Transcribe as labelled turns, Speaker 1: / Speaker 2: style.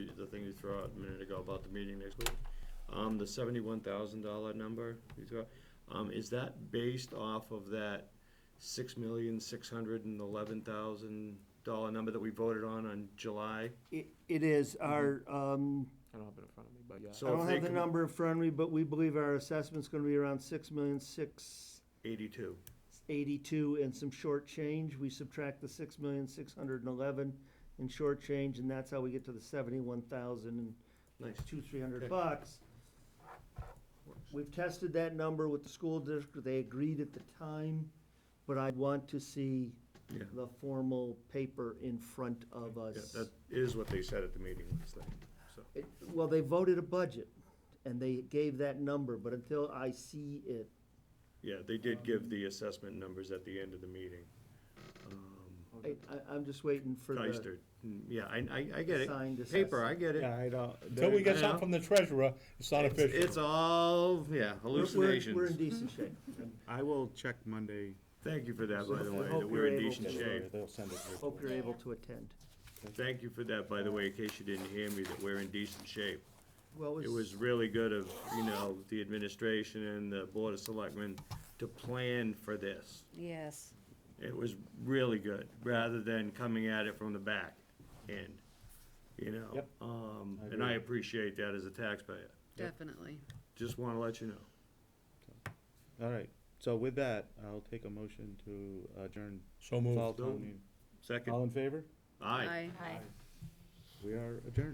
Speaker 1: you threw out a minute ago about the meeting next week. Um, the seventy-one thousand dollar number you threw out, um, is that based off of that six million, six hundred and eleven thousand dollar number that we voted on on July?
Speaker 2: It, it is our, um,
Speaker 3: I don't have it in front of me, but
Speaker 2: I
Speaker 3: yeah.
Speaker 1: Mm-hmm. So if
Speaker 2: don't
Speaker 1: they
Speaker 2: have the
Speaker 1: come-
Speaker 2: number in front of me, but we believe our assessment's gonna be around six million, six
Speaker 1: Eighty-two.
Speaker 2: eighty-two and some short change. We subtract the six million, six hundred and eleven in short change, and that's how we get to the seventy-one thousand and
Speaker 1: Nice.
Speaker 2: two, three
Speaker 1: Okay.
Speaker 2: hundred bucks. We've tested that number with the school district, they agreed at the time, but I want to see
Speaker 1: Yeah.
Speaker 2: the formal paper in front of
Speaker 1: Yeah,
Speaker 2: us.
Speaker 1: that is what they said at the meeting last night, so.
Speaker 2: It- Well, they voted a budget, and they gave that number, but until I see it,
Speaker 1: Yeah, they did give
Speaker 2: Um,
Speaker 1: the assessment numbers at the end of the meeting. Um,
Speaker 2: I, I, I'm just waiting for the
Speaker 1: Geister, mm, yeah, I, I, I get it.
Speaker 2: signed assessment.
Speaker 1: Paper, I get it.
Speaker 4: Yeah, I don't.
Speaker 5: Until we get
Speaker 1: I know.
Speaker 5: something from the treasurer, it's not
Speaker 1: It's- It's
Speaker 5: official.
Speaker 1: all, yeah,
Speaker 2: We're- we're- We're in
Speaker 1: hallucinations.
Speaker 2: decent shape.
Speaker 4: I will check Monday.
Speaker 1: Thank you for that,
Speaker 2: So
Speaker 1: by the
Speaker 2: I
Speaker 1: way,
Speaker 2: hope
Speaker 1: that we're in
Speaker 2: you're able
Speaker 1: decent
Speaker 2: to-
Speaker 1: shape.
Speaker 5: They'll send it.
Speaker 2: Hope you're able to attend.
Speaker 1: Thank you for that, by the way, in case you didn't hear me, that we're in decent shape.
Speaker 2: Well,
Speaker 1: It was really good of, you know, the administration and the Board of Selectmen to plan for this.
Speaker 6: Yes.
Speaker 1: It was really good, rather than coming at it from the back end, you know?
Speaker 5: Yep.
Speaker 1: Um,
Speaker 5: I
Speaker 1: and I
Speaker 5: agree.
Speaker 1: appreciate that as a taxpayer.
Speaker 6: Definitely.
Speaker 1: Just wanna let you know.
Speaker 4: Oh. All right. So with that, I'll take a motion to adjourn
Speaker 5: So moved.
Speaker 4: fall town meeting. All
Speaker 1: Second,
Speaker 4: in favor?
Speaker 1: aye.
Speaker 6: Aye.
Speaker 4: We are adjourned.